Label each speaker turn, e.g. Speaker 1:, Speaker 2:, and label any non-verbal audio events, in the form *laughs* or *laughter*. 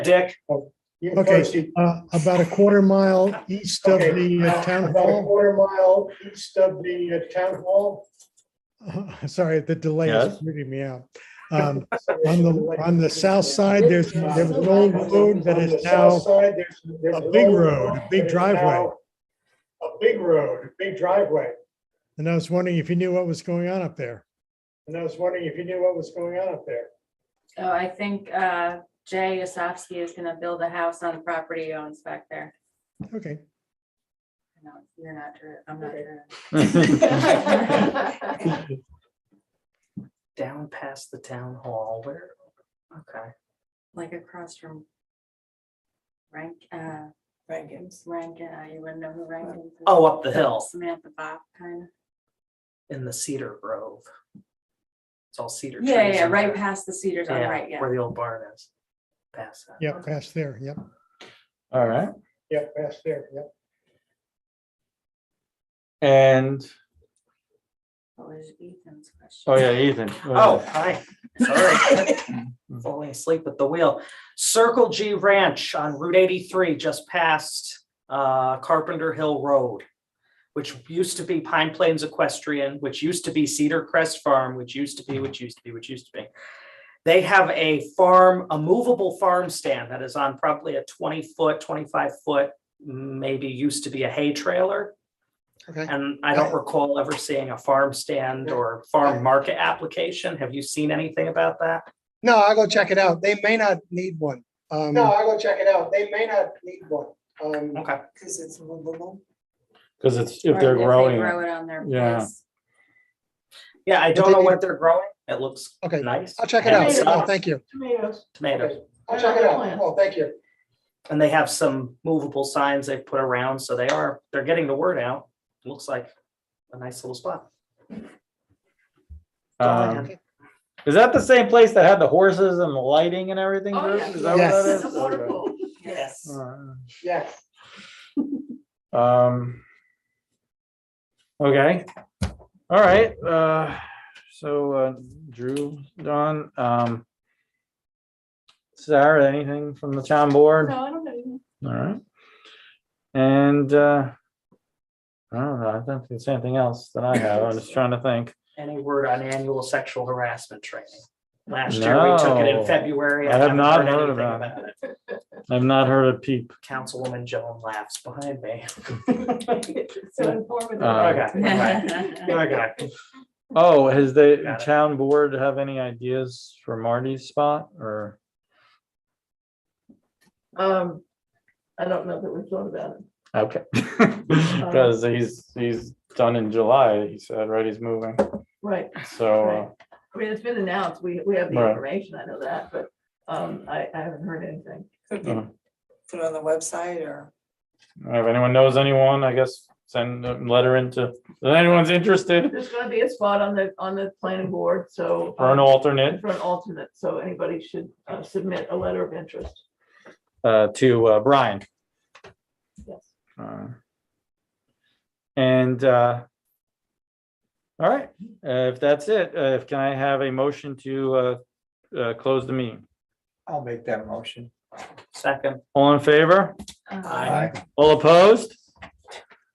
Speaker 1: Dick.
Speaker 2: You
Speaker 3: Okay.
Speaker 2: first, you-
Speaker 3: Uh, about a quarter mile east of the uh, town
Speaker 2: About a
Speaker 3: hall.
Speaker 2: quarter mile east of the uh, town hall.
Speaker 3: *laughs* Sorry, the delay is
Speaker 4: Yes.
Speaker 3: weirding me out. Um, on the, on the south side, there's, there was an old road that
Speaker 2: On the
Speaker 3: is
Speaker 2: south
Speaker 3: now,
Speaker 2: side, there's- there's
Speaker 3: a
Speaker 2: an
Speaker 3: big
Speaker 2: old
Speaker 3: road, a big
Speaker 2: that is
Speaker 3: driveway.
Speaker 2: now A big road, a big driveway.
Speaker 3: and I was wondering if you knew what was going on up there.
Speaker 2: And I was wondering if you knew what was going on up there.
Speaker 5: Oh, I think uh, Jay Osofsky is gonna build a house on the property he owns back there.
Speaker 3: Okay,
Speaker 5: No, You're not true. I'm not
Speaker 2: Okay.
Speaker 5: true.
Speaker 4: *laughs*
Speaker 1: Down past the town hall, where, okay.
Speaker 5: *laughs* Like across from Rank, uh. Rankins. Rankin, uh, you wouldn't know who Rankins is.
Speaker 1: Oh, up the hill
Speaker 5: Samantha Bob, kind of.
Speaker 1: in the Cedar Grove. It's all cedar trees.
Speaker 5: Yeah, yeah,
Speaker 1: in
Speaker 5: right
Speaker 1: there.
Speaker 5: past the Cedars on the
Speaker 1: Yeah,
Speaker 5: right, yeah.
Speaker 1: Where the old barn is. Past that.
Speaker 3: yeah, past there, yep.
Speaker 4: All right,
Speaker 2: Yep, past there, yep.
Speaker 4: and,
Speaker 5: What was Ethan's question?
Speaker 4: oh yeah, Ethan.
Speaker 1: Oh, hi. Sorry. *laughs* Falling asleep at the wheel. Circle G Ranch on Route eighty-three, just past uh, Carpenter Hill Road, which used to be Pine Plains Equestrian, which used to be Cedar Crest Farm, which used to be, which used to be, which used to be. They have a farm, a movable farm stand that is on probably a twenty-foot, twenty-five-foot, maybe used to be a hay trailer.
Speaker 3: Okay.
Speaker 1: And I don't recall ever seeing a farm stand or farm market application. Have you seen anything about that?
Speaker 6: No, I'll go check it out. They may not need one. Um,
Speaker 2: No, I'll go check it out. They may not need one. Um,
Speaker 1: Okay,
Speaker 7: Because it's movable.
Speaker 4: Because it's,
Speaker 5: Or
Speaker 4: if they're
Speaker 5: they
Speaker 4: growing, it.
Speaker 5: Grow it on their
Speaker 4: Yeah.
Speaker 5: place.
Speaker 1: yeah, I
Speaker 6: But
Speaker 1: don't
Speaker 6: they
Speaker 1: know
Speaker 6: need-
Speaker 1: what they're growing. It looks
Speaker 6: Okay,
Speaker 1: nice.
Speaker 6: I'll check it
Speaker 1: And
Speaker 6: out.
Speaker 1: it's
Speaker 6: Oh,
Speaker 1: not
Speaker 6: Thank you.
Speaker 2: Tomatoes.
Speaker 1: Tomatoes,
Speaker 2: I'll check it out. Oh, thank you.
Speaker 1: and they have some movable signs they've put around, so they are, they're getting the word out. Looks like a nice little spot.
Speaker 4: um, is that the same place that had the horses and the lighting and everything?
Speaker 7: Oh,
Speaker 4: Bruce?
Speaker 7: yeah.
Speaker 4: Is that what
Speaker 6: Yes.
Speaker 4: that is? Okay.
Speaker 7: Yes.
Speaker 4: All
Speaker 2: Yes.
Speaker 4: right. Um. Okay, all right, uh, so uh, Drew, Don, um. Sarah, anything from the town board?
Speaker 7: No, I don't know.
Speaker 4: All right. And uh, I don't know, I don't think there's anything else that I have. I'm just trying to think.
Speaker 1: Any word on annual sexual harassment training? Last year, we took it in
Speaker 4: No.
Speaker 1: February.
Speaker 4: I have
Speaker 1: haven't
Speaker 4: not heard
Speaker 1: anything
Speaker 4: about it. I've not heard a peep.
Speaker 1: Councilwoman Joan laughs behind me.
Speaker 7: So informative.
Speaker 4: Uh, *laughs*
Speaker 1: Okay,
Speaker 5: *laughs*
Speaker 7: Uh-huh.
Speaker 1: okay.
Speaker 4: Oh, has the
Speaker 1: Got it.
Speaker 4: town board have any ideas for Marty's spot or?
Speaker 8: Um, I don't know that we've thought about it.
Speaker 4: Okay. *laughs* Because he's, he's done in July, he said, right? He's moving.
Speaker 8: Right.
Speaker 4: So, uh,
Speaker 8: I mean, it's been announced. We, we have the
Speaker 4: Right.
Speaker 8: information. I know that, but, um, I, I haven't heard anything.
Speaker 7: Could be put on the website or.
Speaker 4: uh, if anyone knows anyone, I guess send a letter into, if anyone's interested
Speaker 8: There's gonna be a spot on the, on the planning board, so.
Speaker 4: for an
Speaker 8: um,
Speaker 4: alternate,
Speaker 8: For an alternate, so anybody should uh, submit a letter of interest.
Speaker 4: uh, to uh, Brian.
Speaker 8: Yes.
Speaker 4: Uh, And, uh, all right, uh, if that's it, uh, if, can I have a motion to, uh, uh, close the meeting?
Speaker 1: Second.
Speaker 4: All in favor?
Speaker 5: Uh,
Speaker 1: Aye.
Speaker 4: All opposed?